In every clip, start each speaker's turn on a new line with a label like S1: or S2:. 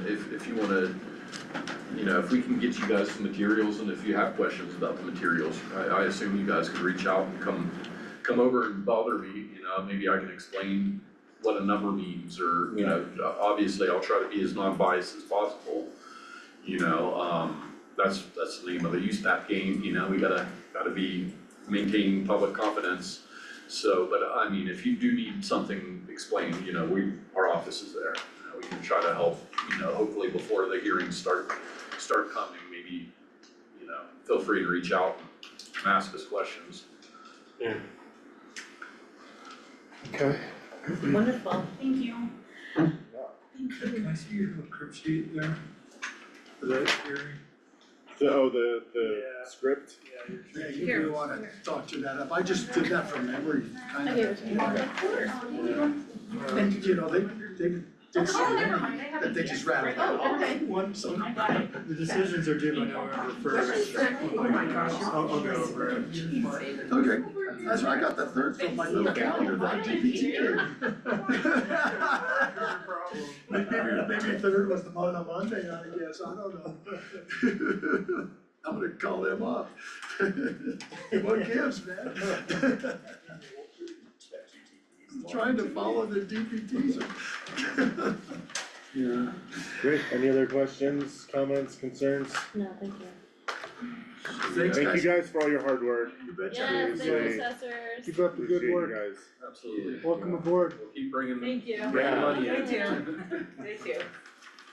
S1: if you wanna, you know, if we can get you guys some materials and if you have questions about the materials, I, I assume you guys could reach out and come, come over and bother me, you know, maybe I can explain what a number means or, you know, obviously I'll try to be as non-biased as possible. You know, um, that's, that's the name of the USAP game, you know, we gotta, gotta be maintaining public confidence. So, but I mean, if you do need something explained, you know, we, our office is there, you know, Uh, we can try to help, you know, hopefully before the hearings start, start coming, maybe, you know, feel free to reach out and ask us questions.
S2: Okay.
S3: Wonderful, thank you. Thank you.
S4: Can I see your little crib sheet there? For that hearing?
S2: The, oh, the, the
S4: Yeah.
S2: script?
S4: Yeah, you
S3: Here,
S4: may wanna
S3: here.
S4: doctor that up, I just did that from memory, kind of.
S3: I gave it to you. Of course.
S4: And you know, they, they did so
S3: Oh, never
S4: many
S3: mind, I have
S4: that
S3: it
S4: they
S3: here.
S4: just rattled
S3: Oh,
S4: out all
S3: okay.
S4: in one, so.
S3: I got it.
S5: The decisions are due by November first.
S3: Oh
S4: my gosh.
S5: I'll, I'll go over it.
S4: Okay, that's why I got the third from my little calendar, that DPT Maybe, maybe third was the mon- on Monday, I guess, I don't know. I'm gonna call them up. What gives, man? Trying to follow the DPTs. Yeah.
S2: Great, any other questions, comments, concerns?
S6: No, thank you.
S2: Thank
S4: Thanks,
S2: you
S4: guys.
S2: guys for all your hard work.
S4: You betcha.
S2: Yes, thank you,
S6: assessors.
S2: Keep up the good work.
S1: Absolutely.
S5: Welcome aboard.
S1: We'll keep bringing the,
S3: Thank you.
S1: bringing money in.
S3: They do, they do.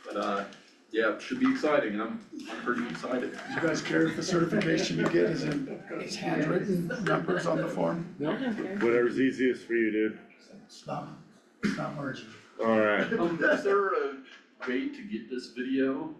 S1: But uh, yeah, it should be exciting, and I'm, I'm pretty excited.
S4: You guys care if the certification you get is in, is handwritten numbers on the form?
S6: I don't care.
S2: Whatever's easiest for you, dude.
S4: It's not, it's not margin.
S2: Alright,
S1: Um, is there a way to get this video?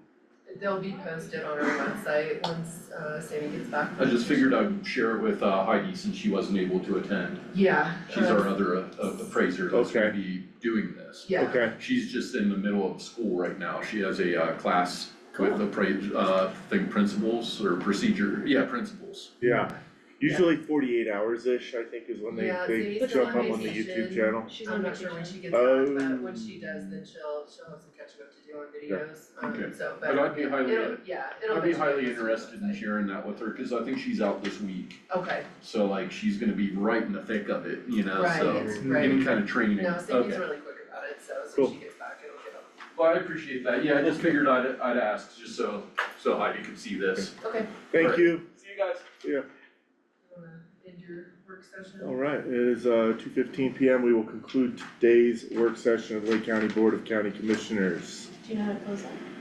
S7: They'll be posted on our website once uh Sammy gets back.
S1: I just figured I'd share it with uh, Heidi since she wasn't able to attend.
S7: Yeah.
S1: She's
S7: uh,
S1: our other uh, appraiser that's gonna
S2: Okay.
S1: be doing this.
S7: Yeah,
S2: okay,
S1: She's just in the middle of school right now, she has a uh class with
S7: Oh.
S1: appra- uh thing principles or procedure, yeah, principles.
S2: yeah. Usually forty-eight hours-ish, I think, is when they,
S7: Yeah,
S2: they
S7: Zay's
S2: jump
S7: on
S2: up on the
S7: vacation.
S2: YouTube channel.
S6: She's
S7: I'm
S6: on
S7: not sure when
S6: vacation.
S7: she gets back,
S1: Oh.
S7: but
S2: Um,
S7: when she does, then she'll she'll have some catching up to do on
S2: Yeah.
S7: videos, um
S1: Okay.
S7: so but
S1: But I'd be highly,
S7: it'll, yeah, it'll.
S1: I'd be
S7: eventually
S1: highly
S7: be
S1: interested in sharing that with her, cause I think she's out this week.
S7: Okay,
S1: So like, she's gonna be right in the thick of it, you know,
S7: right,
S1: so
S7: it's
S2: Mm.
S7: right,
S1: any kind of training,
S7: no, Sammy's
S1: okay.
S7: really quick about it, so as soon
S2: Cool.
S7: as she gets back, it'll get up.
S1: Well, I appreciate that, yeah, I just figured I'd I'd ask, just so so Heidi could see this.
S7: Okay,
S2: Thank you.
S1: See you guys.
S7: you wanna end your work
S1: Oh,
S7: session?
S2: Alright, it is, uh, two fifteen PM. We will conclude today's work session of Lake County Board of County Commissioners.
S6: Do you know how to close that?